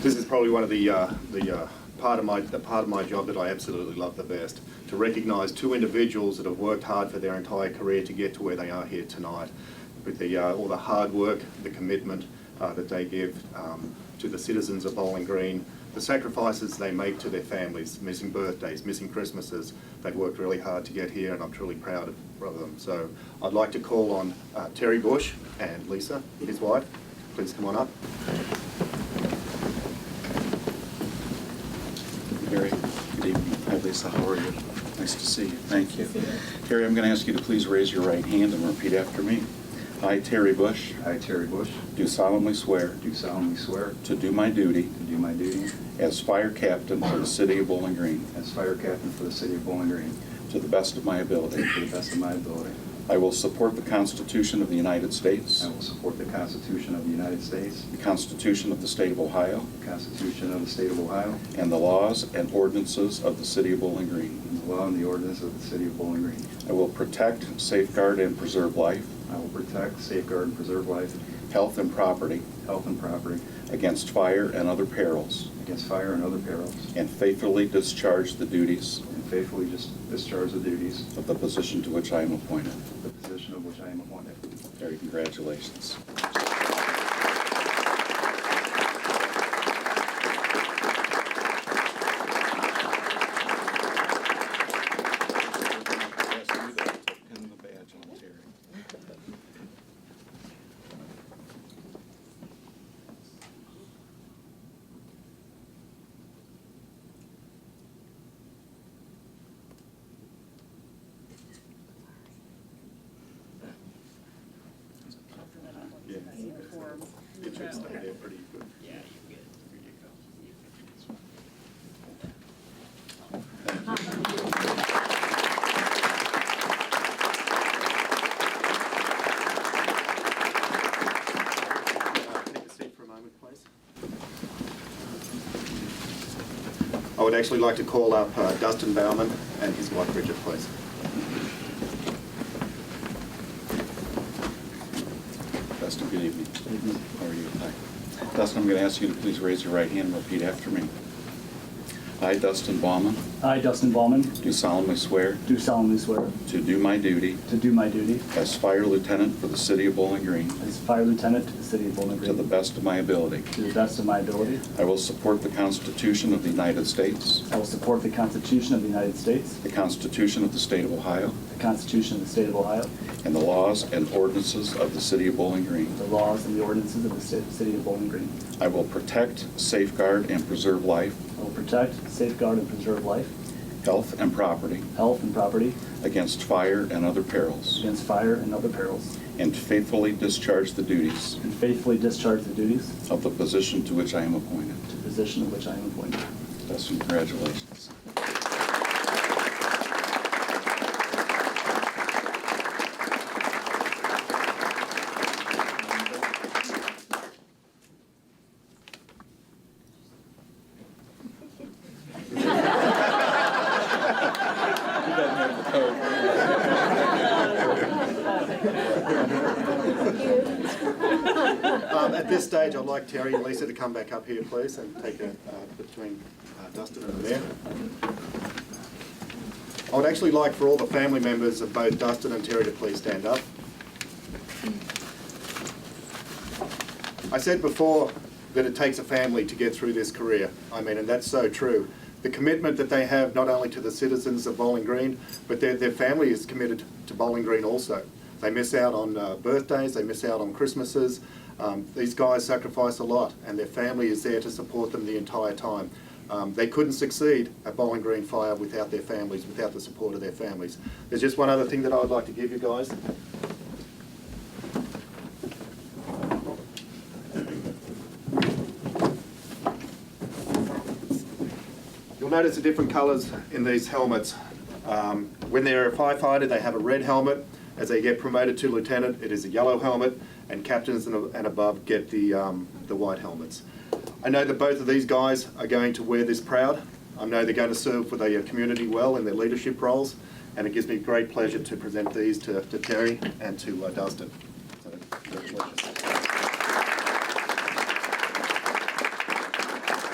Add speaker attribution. Speaker 1: This is probably one of the, uh, the uh, part of my, the part of my job that I absolutely love the best, to recognise two individuals that have worked hard for their entire career to get to where they are here tonight, with the, uh, all the hard work, the commitment uh, that they give um, to the citizens of Bowling Green, the sacrifices they make to their families, missing birthdays, missing Christmases. They've worked really hard to get here, and I'm truly proud of of them. So I'd like to call on uh, Terry Bush and Lisa, his wife. Please come on up.
Speaker 2: Harry, good evening. Hi, Lisa, how are you? Nice to see you. Thank you. Harry, I'm going to ask you to please raise your right hand and repeat after me. I, Terry Bush,
Speaker 3: I, Terry Bush,
Speaker 2: do solemnly swear
Speaker 3: do solemnly swear
Speaker 2: to do my duty
Speaker 3: to do my duty
Speaker 2: as fire captain for the city of Bowling Green
Speaker 3: as fire captain for the city of Bowling Green
Speaker 2: to the best of my ability.
Speaker 3: to the best of my ability.
Speaker 2: I will support the Constitution of the United States,
Speaker 3: I will support the Constitution of the United States,
Speaker 2: the Constitution of the state of Ohio,
Speaker 3: the Constitution of the state of Ohio,
Speaker 2: and the laws and ordinances of the city of Bowling Green.
Speaker 3: and the law and the ordinance of the city of Bowling Green.
Speaker 2: I will protect, safeguard, and preserve life,
Speaker 3: I will protect, safeguard, and preserve life,
Speaker 2: health, and property
Speaker 3: health, and property
Speaker 2: against fire and other perils.
Speaker 3: against fire and other perils,
Speaker 2: And faithfully discharge the duties
Speaker 3: and faithfully just discharge the duties
Speaker 2: of the position to which I am appointed.
Speaker 3: of the position of which I am appointed.
Speaker 2: Terry, congratulations.
Speaker 1: It should stay there pretty good.
Speaker 4: Yeah, you're good.
Speaker 1: Uh, Take a seat for a moment, please. I would actually like to call up uh, Dustin Bauman and his wife Bridget, please.
Speaker 2: Dustin, good evening. How are you? Hi. Dustin, I'm going to ask you to please raise your right hand and repeat after me. I, Dustin Baumann,
Speaker 5: I, Dustin Ballman,
Speaker 2: do solemnly swear
Speaker 5: do solemnly swear
Speaker 2: to do my duty
Speaker 5: to do my duty
Speaker 2: as fire lieutenant for the city of Bowling Green
Speaker 5: as fire lieutenant to the city of Bowling
Speaker 2: to
Speaker 5: Green
Speaker 2: the best of my ability.
Speaker 5: to the best of my ability.
Speaker 2: I will support the Constitution of the United States,
Speaker 5: I will support the Constitution of the United States,
Speaker 2: the Constitution of the State of Ohio,
Speaker 5: the Constitution of the state of Ohio,
Speaker 2: and the laws and ordinances of the City of Bowling Green.
Speaker 5: the laws and the ordinances of the sta- city of Bowling Green.
Speaker 2: I will protect, safeguard, and preserve life,
Speaker 5: I will protect, safeguard, and preserve life,
Speaker 2: health, and property
Speaker 5: health, and property
Speaker 2: against fire and other perils,
Speaker 5: against fire and other perils,
Speaker 2: and faithfully discharge the duties
Speaker 5: and faithfully discharge the duties
Speaker 2: of the position to which I am appointed.
Speaker 5: to the position of which I am appointed.
Speaker 2: Dustin, congratulations.
Speaker 1: Um, At this stage, I'd like Terry and Lisa to come back up here, please, and take a, uh, between uh, Dustin and the mayor. I would actually like for all the family members of both Dustin and Terry to please stand up. I said before that it takes a family to get through this career. I mean, and that's so true. The commitment that they have not only to the citizens of Bowling Green, but their, their family is committed to Bowling Green also. They miss out on uh, birthdays, they miss out on Christmases. Um, these guys sacrifice a lot, and their family is there to support them the entire time. Um, they couldn't succeed at Bowling Green Fire without their families, without the support of their families. There's just one other thing that I would like to give you guys. You'll notice the different colours in these helmets. Um, when they're a firefighter, they have a red helmet. As they get promoted to lieutenant, it is a yellow helmet, and captains and, and above get the, um, the white helmets. I know that both of these guys are going to wear this proud. I know they're going to serve for their community well in their leadership roles, and it gives me great pleasure to present these to, to Terry and to uh, Dustin. So, congratulations.